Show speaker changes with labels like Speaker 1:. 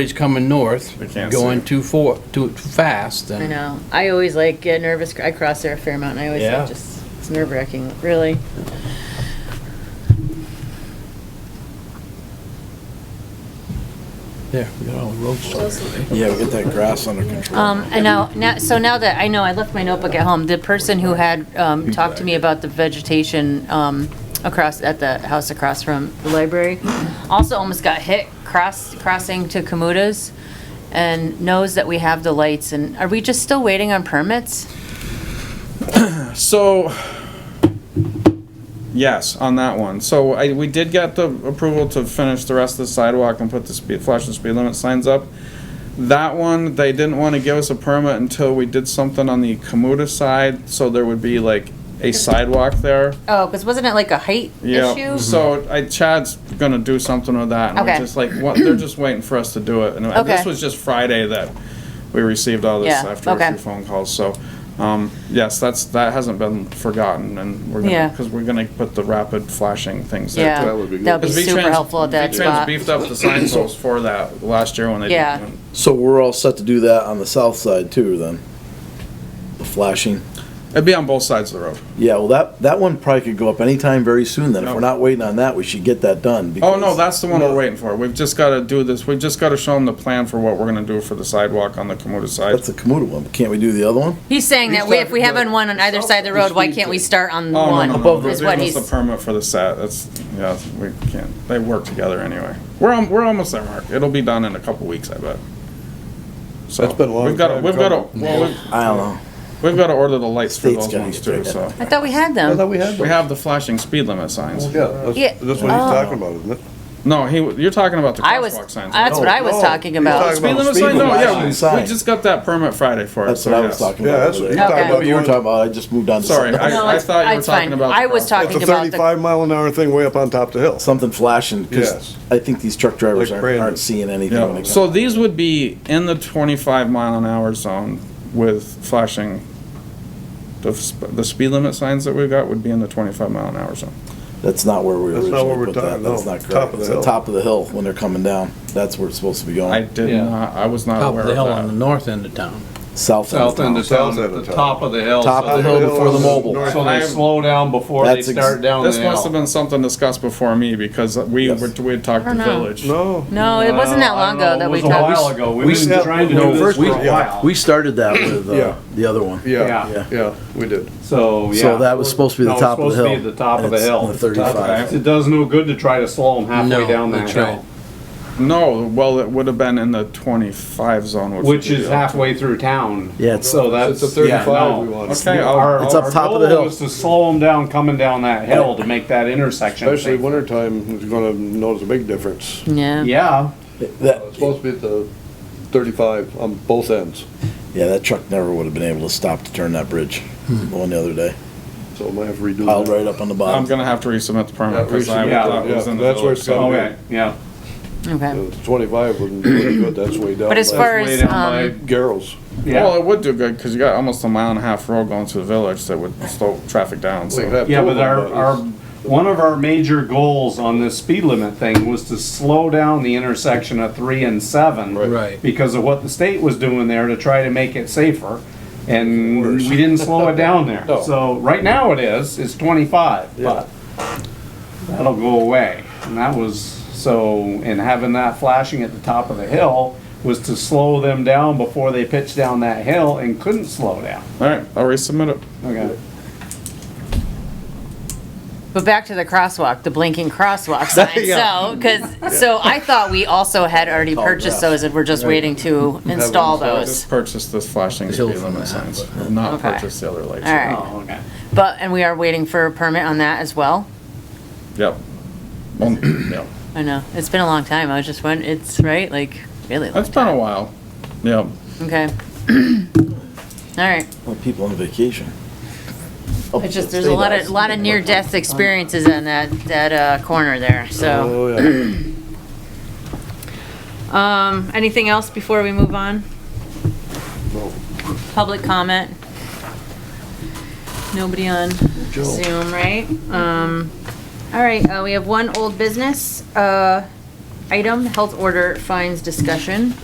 Speaker 1: It's coming north,
Speaker 2: We can't see
Speaker 1: going
Speaker 2: it.
Speaker 1: too for, too fast,
Speaker 3: I
Speaker 1: and
Speaker 3: know. I always like get nervous. I cross there a fair amount, and I always
Speaker 1: Yeah.
Speaker 3: like just it's nerve wracking, really.
Speaker 1: there, we got all the roads started.
Speaker 2: Yeah, we get that grass under control.
Speaker 3: Um, I know, now, so now that, I know, I left my notebook at home, the person who had, um, talked to me about the vegetation, um, across, at the house across from the library, also almost got hit cross, crossing to Kamuta's, and knows that we have the lights, and are we just still waiting on permits?
Speaker 2: So, yes, on that one. So I, we did get the approval to finish the rest of the sidewalk and put the speed, flash and speed limit signs up. That one, they didn't want to give us a permit until we did something on the Kamuta side, so there would be like a sidewalk there.
Speaker 3: Oh, because wasn't it like a height
Speaker 2: Yeah,
Speaker 3: issue?
Speaker 2: Mm-hmm. so I, Chad's gonna do something with that, and we're
Speaker 3: Okay.
Speaker 2: just like, what, they're just waiting for us to do it, and this
Speaker 3: Okay.
Speaker 2: was just Friday that we received all this
Speaker 3: Yeah,
Speaker 2: after a
Speaker 3: okay.
Speaker 2: few phone calls, so, um, yes, that's, that hasn't been forgotten, and we're
Speaker 3: Yeah.
Speaker 2: gonna, cause we're gonna put the rapid flashing things there.
Speaker 3: Yeah,
Speaker 2: too.
Speaker 4: That would be good.
Speaker 3: that'd be
Speaker 2: 'Cause V-Trans-
Speaker 3: super helpful at that
Speaker 2: V-Trans
Speaker 3: spot.
Speaker 2: beefed up the sign posts for that last year when they. did-
Speaker 3: Yeah.
Speaker 4: So we're all set to do that on the south side too, then? The flashing?
Speaker 2: It'd be on both sides of the road.
Speaker 4: Yeah, well, that, that one probably could go up anytime very soon then. If
Speaker 2: No.
Speaker 4: we're not waiting on that, we should get that done.
Speaker 2: Oh, no,
Speaker 4: because-
Speaker 2: that's the one we're
Speaker 4: No.
Speaker 2: waiting for. We've just gotta do this, we've just gotta show them the plan for what we're gonna do for the sidewalk on the Kamota side.
Speaker 4: That's the Kamuta one. Can't we do the other one?
Speaker 3: He's saying that we- if we
Speaker 2: He's talking
Speaker 3: haven't one on either side of the road, why can't we start on
Speaker 2: Oh, no,
Speaker 3: one?
Speaker 2: no, no,
Speaker 4: Above
Speaker 2: no,
Speaker 4: the-
Speaker 3: Is what
Speaker 2: They give us
Speaker 3: he's-
Speaker 2: the permit for the set, that's, yeah, we can't, they work together anyway. We're, al- we're almost there, Mark, it'll be done in a couple weeks, I bet. So,
Speaker 5: That's been a long
Speaker 2: we've gotta-
Speaker 5: time
Speaker 2: We've gotta,
Speaker 5: coming.
Speaker 2: well, we've,
Speaker 4: I don't know.
Speaker 2: we've gotta order the lights for
Speaker 4: State's
Speaker 2: those
Speaker 4: gotta
Speaker 2: ones
Speaker 4: get
Speaker 2: too,
Speaker 4: that
Speaker 2: so.
Speaker 4: done.
Speaker 3: I thought we had
Speaker 5: I thought
Speaker 3: them.
Speaker 5: we had
Speaker 2: We
Speaker 5: those.
Speaker 2: have the flashing speed limit signs.
Speaker 5: Yeah, that's,
Speaker 3: Yeah. Oh.
Speaker 5: that's what he's talking about, isn't it?
Speaker 2: No, he, you're talking about the
Speaker 3: I was,
Speaker 2: crosswalk signs. right?
Speaker 3: that's what I was
Speaker 5: No,
Speaker 3: talking
Speaker 5: you're
Speaker 3: about.
Speaker 5: Oh. talking
Speaker 2: Speed
Speaker 5: about
Speaker 2: limit
Speaker 5: speed
Speaker 2: sign, no,
Speaker 5: limit
Speaker 2: yeah, we- we
Speaker 4: sign.
Speaker 2: just got that permit Friday for it,
Speaker 4: That's
Speaker 2: so
Speaker 4: what I was
Speaker 2: yes.
Speaker 4: talking
Speaker 5: Yeah,
Speaker 4: about.
Speaker 5: that's what
Speaker 4: over
Speaker 5: you're
Speaker 4: there.
Speaker 3: talking about.
Speaker 4: What you were talking about, I just moved on to
Speaker 2: Sorry,
Speaker 4: something.
Speaker 2: I,
Speaker 3: No,
Speaker 2: I
Speaker 3: it's-
Speaker 2: thought you were
Speaker 3: it's
Speaker 2: talking
Speaker 3: fine.
Speaker 2: about.
Speaker 3: I
Speaker 2: the crosswalk.
Speaker 3: was
Speaker 5: It's a
Speaker 3: Talking about the-
Speaker 5: thirty-five mile an hour thing way up on top of the hill.
Speaker 4: Something flashing, because
Speaker 5: Yes.
Speaker 4: I think these truck drivers
Speaker 5: Like
Speaker 4: aren't,
Speaker 5: Brandon.
Speaker 4: aren't seeing anything. when
Speaker 2: Yeah,
Speaker 4: it
Speaker 2: so
Speaker 4: comes-
Speaker 2: these would be in the twenty-five mile an hour zone with flashing. The, sp- the speed limit signs that we've got would be in the twenty-five mile an hour zone.
Speaker 4: That's not where we
Speaker 5: That's not where
Speaker 4: originally
Speaker 5: we're
Speaker 4: put that.
Speaker 5: talking,
Speaker 4: That's
Speaker 5: no.
Speaker 4: not
Speaker 5: Top of
Speaker 4: correct.
Speaker 5: the
Speaker 4: It's the
Speaker 5: hill.
Speaker 4: top of the hill when they're coming down. That's where it's supposed to be
Speaker 2: I
Speaker 4: going.
Speaker 2: did
Speaker 6: Yeah.
Speaker 2: not, I was not
Speaker 1: Top
Speaker 2: aware
Speaker 1: of the hill on
Speaker 2: of
Speaker 1: the
Speaker 2: that.
Speaker 1: north end of town.
Speaker 4: South end of
Speaker 6: South end
Speaker 4: town.
Speaker 6: of
Speaker 5: South
Speaker 6: town,
Speaker 5: end
Speaker 6: the
Speaker 5: of town.
Speaker 6: top of the hill.
Speaker 4: Top
Speaker 6: so
Speaker 4: of the hill before the
Speaker 5: is
Speaker 4: mobile.
Speaker 5: north-
Speaker 6: So they slow down before they
Speaker 4: That's ex-
Speaker 6: start down the
Speaker 2: This must have
Speaker 6: hill.
Speaker 2: been something discussed before me because we,
Speaker 4: Yes.
Speaker 2: were- we had talked to
Speaker 3: don't know.
Speaker 2: Village.
Speaker 5: No,
Speaker 3: No, it wasn't that long ago that we
Speaker 6: Uh, It was a
Speaker 3: talked.
Speaker 6: while ago.
Speaker 5: we
Speaker 6: We've been
Speaker 5: said-
Speaker 6: trying to
Speaker 5: no,
Speaker 6: do this
Speaker 5: first
Speaker 6: for
Speaker 5: we-
Speaker 6: a
Speaker 5: yeah.
Speaker 6: while.
Speaker 4: We started that with
Speaker 5: Yeah.
Speaker 4: uh, the other one.
Speaker 5: yeah,
Speaker 6: Yeah.
Speaker 5: yeah, we did.
Speaker 6: So, yeah.
Speaker 4: So that was supposed to be the
Speaker 6: No,
Speaker 4: top of the hill.
Speaker 6: It's supposed to be the top of
Speaker 4: and
Speaker 6: the
Speaker 4: it's
Speaker 6: hill.
Speaker 4: on the 35.
Speaker 6: It does no good to try to slow them halfway
Speaker 1: No,
Speaker 6: down that
Speaker 1: that's right.
Speaker 6: hill,
Speaker 2: No, well, it would have been in the twenty-five zone, which.
Speaker 6: which
Speaker 2: would be
Speaker 6: is
Speaker 2: the-
Speaker 6: halfway through town.
Speaker 4: Yeah, it's-
Speaker 6: So that's.
Speaker 5: It's a
Speaker 6: yeah,
Speaker 5: thirty-five
Speaker 6: no.
Speaker 5: we want,
Speaker 2: Okay,
Speaker 6: Our,
Speaker 2: I'll,
Speaker 4: It's up
Speaker 6: our
Speaker 4: top of the
Speaker 6: goal
Speaker 4: hill.
Speaker 6: is to slow them down coming down that hill to make that intersection.
Speaker 5: especially
Speaker 6: safe.
Speaker 5: wintertime, it's gonna notice a big difference.
Speaker 3: Yeah.
Speaker 6: Yeah,
Speaker 4: That,
Speaker 5: It's supposed to be at the thirty-five on both ends,
Speaker 4: yeah, that truck never would have been able to stop to turn that bridge.
Speaker 5: Hmm.
Speaker 4: The one the other day,
Speaker 5: so I might have to redo
Speaker 4: piled
Speaker 5: that.
Speaker 4: Oh, right up on the
Speaker 2: I'm
Speaker 4: bottom.
Speaker 2: gonna have to resubmit the
Speaker 5: Yeah,
Speaker 2: permit because I
Speaker 5: resubmit
Speaker 2: thought
Speaker 5: it,
Speaker 2: it was
Speaker 5: yeah,
Speaker 2: in the
Speaker 5: that's where it's
Speaker 2: village.
Speaker 5: gotta
Speaker 2: zone.
Speaker 5: be.
Speaker 6: okay, yeah.
Speaker 3: Okay.
Speaker 5: The Twenty-five wouldn't do good, that's way down.
Speaker 3: But as
Speaker 5: by
Speaker 3: far
Speaker 6: way
Speaker 3: as,
Speaker 6: down
Speaker 3: um,
Speaker 5: Garrels,
Speaker 2: Well,
Speaker 1: Oh,
Speaker 6: Yeah,
Speaker 2: it would do good because you got almost a mile and a half road going to the village that would slow traffic down,
Speaker 5: We could
Speaker 2: so.
Speaker 5: have
Speaker 6: yeah,
Speaker 5: two of
Speaker 6: but our,
Speaker 5: them,
Speaker 6: our, one of our major goals on this speed limit thing was to slow down the intersection of three and seven.
Speaker 1: Right.
Speaker 6: Because of what the state was doing there to try to make it safer, and we didn't slow it down there.
Speaker 5: No.
Speaker 6: So, right now it is, it's twenty-five, but that'll go away. And that was, so, and having that flashing at the top of the hill was to slow them down before they pitched down that hill and couldn't slow down.
Speaker 2: All right, I'll resubmit it.
Speaker 6: Okay.
Speaker 3: But back to the crosswalk, the blinking crosswalk sign. So, because, so I thought we also had already purchased those and we're just waiting to install
Speaker 2: So I
Speaker 3: those.
Speaker 2: just purchased this flashing
Speaker 1: Hill
Speaker 2: speed
Speaker 1: from that,
Speaker 2: limit signs, I've not
Speaker 3: Oh, Okay.
Speaker 2: purchased the other lights.
Speaker 3: All right.
Speaker 6: Oh, okay.
Speaker 3: But, and we are waiting for a permit on that as well.
Speaker 2: Yep. Well, yeah,
Speaker 3: I know. It's been a long time. I was just wondering, it's right, like, really long.
Speaker 2: that's been a while. Yeah,
Speaker 3: Okay. All right.
Speaker 5: Um,
Speaker 4: Well, people on vacation.
Speaker 5: Oh,
Speaker 3: It's just, there's a lot of, lot of near-death experiences in that, that, uh, corner there, so.
Speaker 5: Oh, yeah.
Speaker 3: Um, anything else before we move on?
Speaker 5: No.
Speaker 3: Public comment? Nobody on Zoom, right? Um, all right, uh, we have one old business, uh, item, health order fines discussion.